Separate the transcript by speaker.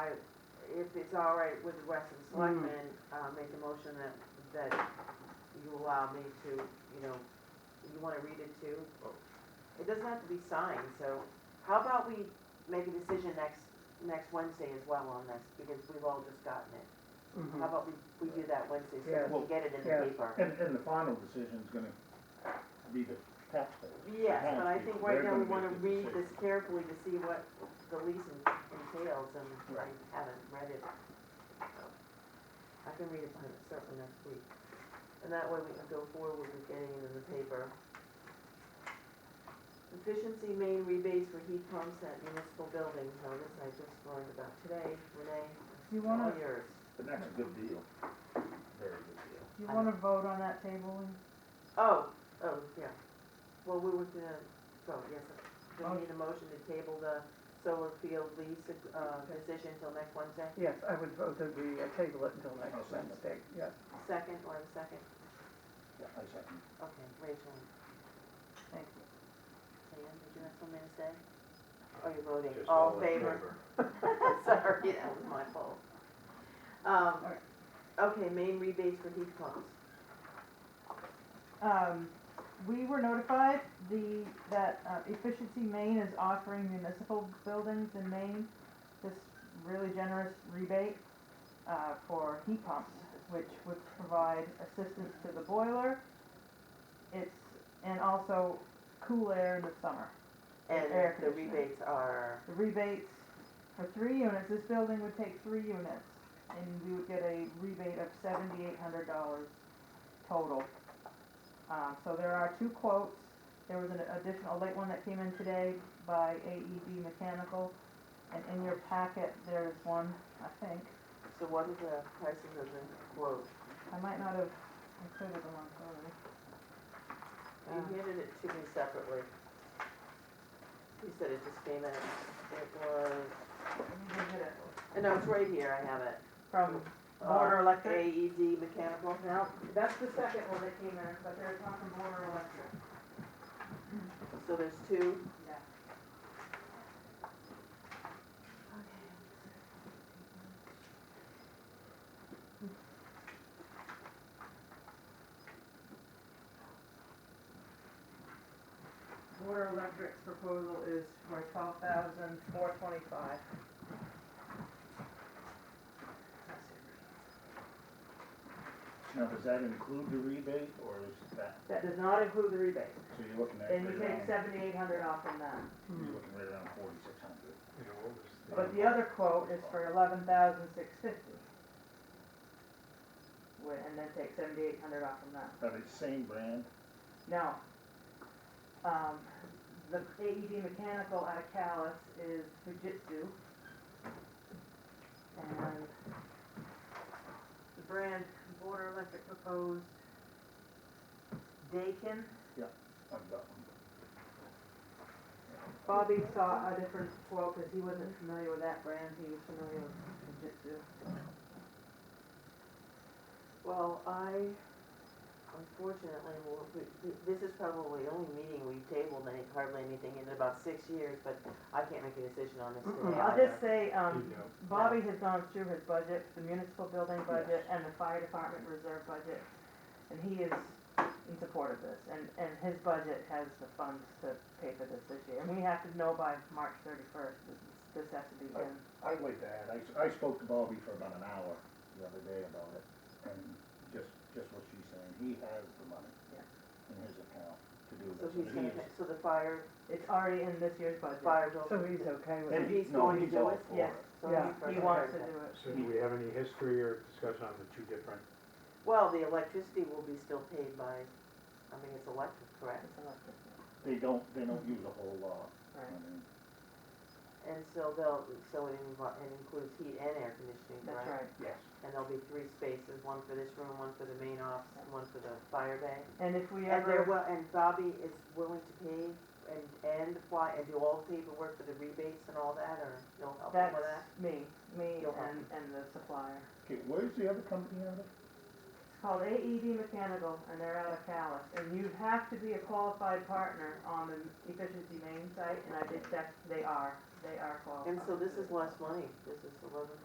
Speaker 1: if it's all right with the rest of
Speaker 2: Mm.
Speaker 1: the
Speaker 3: Mhm.
Speaker 1: selectmen, uh, make a motion that, that you allow me to, you know, you wanna read it too?
Speaker 4: Oh.
Speaker 1: It doesn't have to be signed, so how about we make a decision next, next Wednesday as well on this, because we've all just gotten it.
Speaker 3: Mm-hmm.
Speaker 1: How about we, we do that Wednesday, so
Speaker 2: Hmm. Yeah.
Speaker 1: that we get it in
Speaker 2: Yeah.
Speaker 1: the paper?
Speaker 2: And, and the final decision's gonna be the taxpayers.
Speaker 1: Yes, but I think right now we
Speaker 2: They're gonna
Speaker 1: wanna
Speaker 2: make the
Speaker 1: read
Speaker 2: decision.
Speaker 1: this carefully to see what the lease en- entails, and I
Speaker 2: Right.
Speaker 1: haven't read it. so. I can read it by myself for next week, and that way we can go forward with getting it in the paper. Efficiency main rebates for heat pumps at municipal buildings, now this I just learned about today, Renee,
Speaker 5: You
Speaker 1: it's
Speaker 5: wanna-
Speaker 1: all yours.
Speaker 2: But that's a good deal, very good deal.
Speaker 5: Do you wanna vote on that table? and-
Speaker 1: Oh, oh, yeah. Well, we were gonna, so, yes, do we need a motion to table the solar field lease, uh, decision till next Wednesday?
Speaker 3: Yes, I would vote that we uh, table it until
Speaker 2: I'll
Speaker 5: Oh,
Speaker 3: next
Speaker 2: second.
Speaker 3: Wednesday, yes.
Speaker 1: Second, or a second?
Speaker 2: Yeah, I second.
Speaker 1: Okay, Rachel,
Speaker 5: Thank you.
Speaker 1: Sam, did you have something to say? Oh, you're voting,
Speaker 4: Just
Speaker 1: all in
Speaker 4: in
Speaker 1: favor? Sorry, that was my fault. Um,
Speaker 5: Alright.
Speaker 1: okay, main rebates for heat pumps.
Speaker 5: Um, we were notified the, that uh, Efficiency Maine is offering municipal buildings in Maine this really generous rebate, uh, for heat pumps, which would provide assistance to the boiler. It's, and also cool air in the summer.
Speaker 1: And
Speaker 5: Air
Speaker 1: the
Speaker 5: conditioning.
Speaker 1: rebates are,
Speaker 5: The rebates for three units, this building would take three units, and we would get a rebate of seventy-eight hundred dollars total. Uh, so there are two quotes, there was an additional, late one that came in today by AED Mechanical, and in your packet, there's one, I think,
Speaker 1: so what are the prices of the quote?
Speaker 5: I might not have included them on Friday. Um,
Speaker 1: You handed it to me separately. You said it just came in, it was,
Speaker 5: Let me go get it.
Speaker 1: and no, it's right here, I have it.
Speaker 5: From
Speaker 1: Uh,
Speaker 5: Border Electric?
Speaker 1: AED mechanical,
Speaker 5: No, that's the second one that came in, but there's one from Border Electric.
Speaker 1: so there's two.
Speaker 5: Yeah. Water Electric's proposal is for twelve thousand four twenty-five.
Speaker 2: Now, does that include the rebate, or is that,
Speaker 5: That does not include the rebate,
Speaker 2: so you're looking at
Speaker 5: and
Speaker 2: right
Speaker 5: you take
Speaker 2: around,
Speaker 5: seventy-eight hundred off from that.
Speaker 2: you're looking right around forty-six hundred.
Speaker 5: But the other quote is for eleven thousand six fifty. And then take seventy-eight hundred off from that.
Speaker 2: Are they same brand?
Speaker 5: Now, um, the AED mechanical out of Callis is Fujitsu. And the brand Border Electric proposed Dakin.
Speaker 2: I've got one.
Speaker 5: Bobby saw a different quote because he wasn't familiar with that brand, he was familiar with Fujitsu.
Speaker 1: Well, I unfortunately, will- th- th- this is probably the only meeting we've tabled any, hardly anything in about six years, but I can't make a decision on this today
Speaker 3: Mm-mm.
Speaker 5: I'll
Speaker 1: either.
Speaker 5: just say, um, Bobby has gone through his budget, the municipal building budget and the fire department reserve budget. And he is in support of this and, and his budget has the funds to pay for this this year. And we have to know by March thirty-first, this, is- this has to be in.
Speaker 2: I'd like to add, I, s- I spoke to Bobby for about an hour the other day about it, and just, just what she's saying, he has the money
Speaker 5: Yeah.
Speaker 2: in his account to do
Speaker 1: So
Speaker 2: this.
Speaker 1: he's
Speaker 2: and
Speaker 1: gonna,
Speaker 2: he is-
Speaker 1: pay- so the fire,
Speaker 5: It's already in this year's budget.
Speaker 1: fire's
Speaker 3: So
Speaker 1: over.
Speaker 3: he's okay with
Speaker 2: and
Speaker 3: it?
Speaker 2: he-
Speaker 1: he's
Speaker 2: no,
Speaker 1: going to do
Speaker 2: all
Speaker 1: it?
Speaker 2: for
Speaker 5: Yes.
Speaker 1: So
Speaker 3: Yeah.
Speaker 1: he's
Speaker 5: He
Speaker 1: gonna
Speaker 5: wants
Speaker 1: hurt
Speaker 5: to
Speaker 1: that.
Speaker 5: do it.
Speaker 6: So do we have any history or discussion on the two different,
Speaker 1: Well, the electricity will be still paid by, I mean, it's electric, correct?
Speaker 5: It's electric, yeah.
Speaker 2: They don't, they don't use a whole lot, I
Speaker 5: right,
Speaker 2: mean,
Speaker 1: And so they'll, so it invo- it includes heat and air conditioning,
Speaker 5: that's
Speaker 1: correct?
Speaker 5: right.
Speaker 2: yes.
Speaker 1: And there'll be three spaces, one for this room, one for the main office, and one for the fire bay.
Speaker 5: And if we
Speaker 1: And they're,
Speaker 5: ever,
Speaker 1: will- and Bobby is willing to pay and, and apply, and do all the paperwork for the rebates and all that, or you'll help him
Speaker 5: that's
Speaker 1: with that?
Speaker 5: me, me
Speaker 1: You'll help
Speaker 5: and, and the supplier.
Speaker 2: Okay, where's the other company out of?
Speaker 5: It's called AED Mechanical, and they're out of Callis, and you have to be a qualified partner on the Efficiency Main site, and I did check, they are. they are
Speaker 1: And
Speaker 5: qualified.
Speaker 1: so this
Speaker 5: to do
Speaker 1: is
Speaker 5: it.
Speaker 1: less money, this is eleven